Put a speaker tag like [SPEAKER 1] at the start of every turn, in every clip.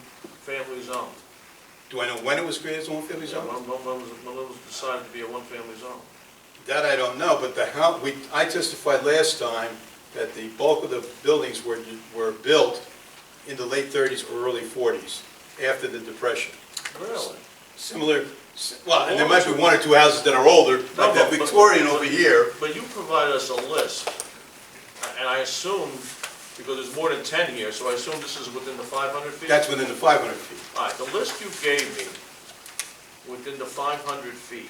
[SPEAKER 1] one-family zone.
[SPEAKER 2] Do I know when it was created as a one-family
[SPEAKER 1] Yeah,
[SPEAKER 2] zone?
[SPEAKER 1] When when- when was it- when it was decided to be a one-family zone?
[SPEAKER 2] That I don't know, but the house, we, I testified last time that the bulk of the buildings were, were built in the late thirties or early forties, after the Depression.
[SPEAKER 1] Really?
[SPEAKER 2] Similar, well, and there might be one or two houses that are older, like that Victorian over here.
[SPEAKER 1] But you provided us a list, and I assume, because there's more than 10 here, so I assume this is within the 500 feet?
[SPEAKER 2] That's within the five hundred feet.
[SPEAKER 1] All right, the list you gave me, within the 500 feet,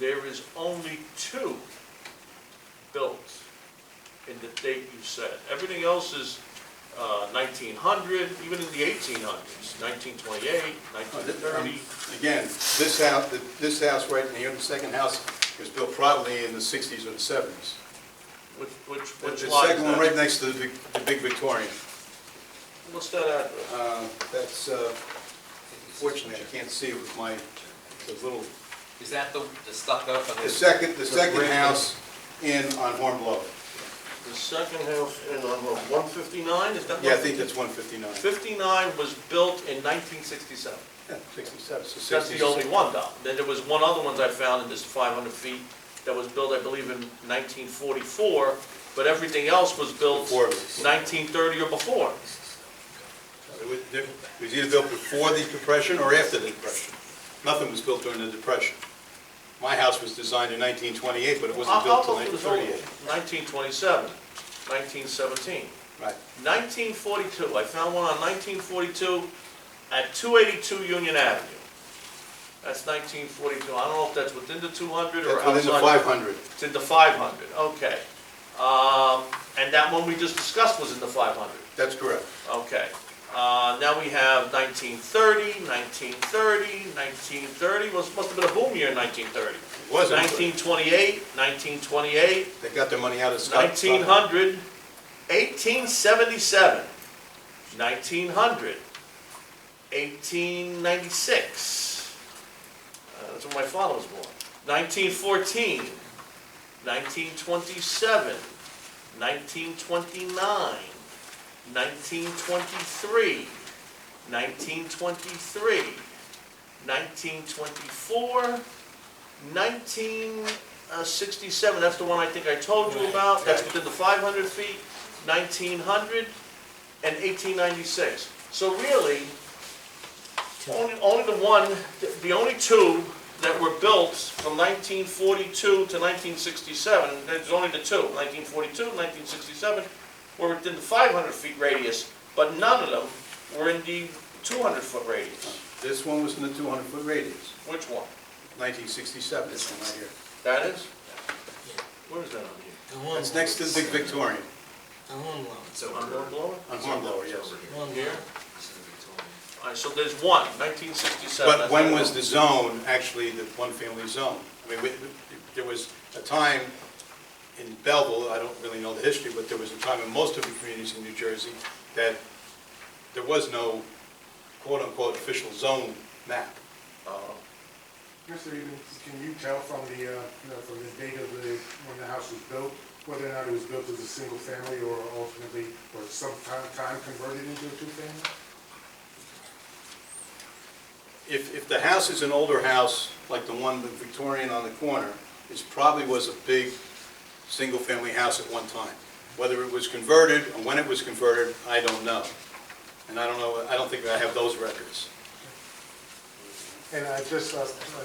[SPEAKER 1] there is only two built in the date you said. Everything else is uh, 1900, even in the 1800s, 1928,
[SPEAKER 2] Oh,
[SPEAKER 1] Oh, 1930.
[SPEAKER 2] um, Again, this house, this house right in here, the second house, was built probably in the sixties or the seventies.
[SPEAKER 1] Which, which,
[SPEAKER 2] The
[SPEAKER 1] which lot is
[SPEAKER 2] second one right
[SPEAKER 1] that?
[SPEAKER 2] next to the Vic- the big Victorian.
[SPEAKER 1] What's that address?
[SPEAKER 2] Uh, That's, uh, fortunately, I can't see it with my, the little,
[SPEAKER 3] Is that the, the stucco of
[SPEAKER 2] the
[SPEAKER 3] this?
[SPEAKER 2] second, the second
[SPEAKER 3] brick-
[SPEAKER 2] house in on Horn Bluff.
[SPEAKER 1] The second house in, on what, 159, is that?
[SPEAKER 2] Yeah, I think that's one fifty-nine.
[SPEAKER 1] 59 was built in 1967.
[SPEAKER 2] Yeah, sixty-seven, so
[SPEAKER 1] That's the
[SPEAKER 2] sixty.
[SPEAKER 1] only one, though. Then there was one other ones I found in this 500 feet that was built, I believe, in 1944, but everything else was built
[SPEAKER 2] Before.
[SPEAKER 1] 1930 or before.
[SPEAKER 2] It was there- it was either built before the Depression or after the Depression. Nothing was built during the Depression. My house was designed in nineteen twenty-eight, but it wasn't
[SPEAKER 1] I'll- I'll
[SPEAKER 2] built till
[SPEAKER 1] go through
[SPEAKER 2] nineteen
[SPEAKER 1] this whole-
[SPEAKER 2] thirty-eight.
[SPEAKER 1] 1927, 1917.
[SPEAKER 2] Right.
[SPEAKER 1] 1942, I found one on 1942 at 282 Union Avenue. That's 1942, I don't know if that's within the 200 or outside.
[SPEAKER 2] That's within the five hundred.
[SPEAKER 1] It's in the 500, okay. Um, And that one we just discussed was in the 500,
[SPEAKER 2] That's correct.
[SPEAKER 1] okay. Uh, Now we have 1930, 1930, 1930, was, must have been a boom year in 1930.
[SPEAKER 2] It wasn't. but
[SPEAKER 1] 1928, 1928,
[SPEAKER 2] They got their money out of Scott.
[SPEAKER 1] 1900, 1877, 1900, 1896. Uh, That's when my father was born. 1914, 1927, 1929, 1923, 1923, 1924, 1967, that's the one I think I told you about, that's within the 500 feet, 1900, and 1896. So really, only, only the one, the only two that were built from 1942 to 1967, there's only the two, 1942, 1967, were within the 500 feet radius, but none of them were in the 200 foot radius.
[SPEAKER 2] This one was in the two hundred foot radius.
[SPEAKER 1] Which one?
[SPEAKER 2] Nineteen sixty-seven, this one right here.
[SPEAKER 1] That is? Where is that on here?
[SPEAKER 4] The one
[SPEAKER 2] It's next to the big Victorian,
[SPEAKER 4] The one loan.
[SPEAKER 3] So
[SPEAKER 1] On
[SPEAKER 3] over,
[SPEAKER 1] Mount Laurel?
[SPEAKER 2] on Hornblower, yes.
[SPEAKER 4] One
[SPEAKER 1] Here?
[SPEAKER 4] loan.
[SPEAKER 3] this is Victoria.
[SPEAKER 1] All right, so there's one, 1967.
[SPEAKER 2] But when was the zone actually the one-family zone? I mean, we- there was a time in Belleville, I don't really know the history, but there was a time in most of the communities in New Jersey that there was no quote-unquote official zone map.
[SPEAKER 1] Uh,
[SPEAKER 5] Mr. Evans, can you tell from the, uh, you know, from the date of the, when the house was built, whether or not it was built as a single family or ultimately, or sometime time converted into a two-family?
[SPEAKER 2] If, if the house is an older house, like the one, the Victorian on the corner, it probably was a big, single-family house at one time. Whether it was converted, and when it was converted, I don't know. And I don't know, I don't think I have those records.
[SPEAKER 5] And I just, uh, uh,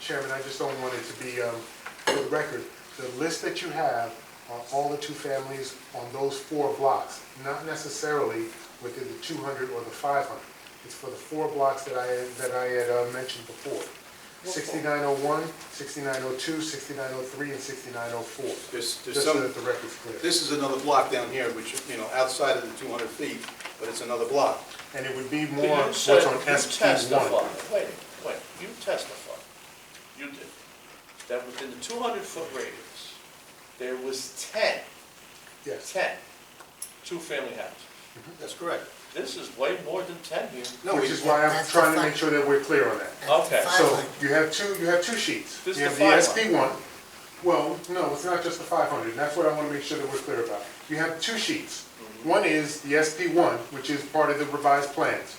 [SPEAKER 5] Chairman, I just don't want it to be, um, for the record, the list that you have are all the two families on those four blocks, not necessarily within the 200 or the 500. It's for the four blocks that I, that I had uh, mentioned before. 6901, 6902, 6903, and 6904.
[SPEAKER 2] There's, there's
[SPEAKER 5] Just so
[SPEAKER 2] some,
[SPEAKER 5] that the record's clear.
[SPEAKER 2] this is another block down here, which, you know, outside of the 200 feet, but it's another block.
[SPEAKER 5] And it would be
[SPEAKER 1] But
[SPEAKER 5] more
[SPEAKER 1] you
[SPEAKER 5] what's
[SPEAKER 1] said-
[SPEAKER 5] on
[SPEAKER 1] you
[SPEAKER 5] SP1.
[SPEAKER 1] testified. Wait, wait, you testified, you did, that within the 200-foot radius, there was 10,
[SPEAKER 5] Yes.
[SPEAKER 1] 10 two-family houses.
[SPEAKER 2] That's correct.
[SPEAKER 1] This is way more than 10 here.
[SPEAKER 2] No,
[SPEAKER 5] Which
[SPEAKER 2] we-
[SPEAKER 5] is why I'm
[SPEAKER 4] That's the
[SPEAKER 5] trying to
[SPEAKER 4] fact.
[SPEAKER 5] make sure that we're clear on that.
[SPEAKER 1] Okay.
[SPEAKER 5] So you have two, you have two sheets.
[SPEAKER 1] This is
[SPEAKER 5] You have
[SPEAKER 1] the
[SPEAKER 5] the
[SPEAKER 1] 500.
[SPEAKER 5] SB one. Well, no, it's not just the five hundred, that's what I wanna make sure that we're clear about. You have two sheets.
[SPEAKER 1] Mm-hmm.
[SPEAKER 5] One is the SP one, which is part of the revised plans.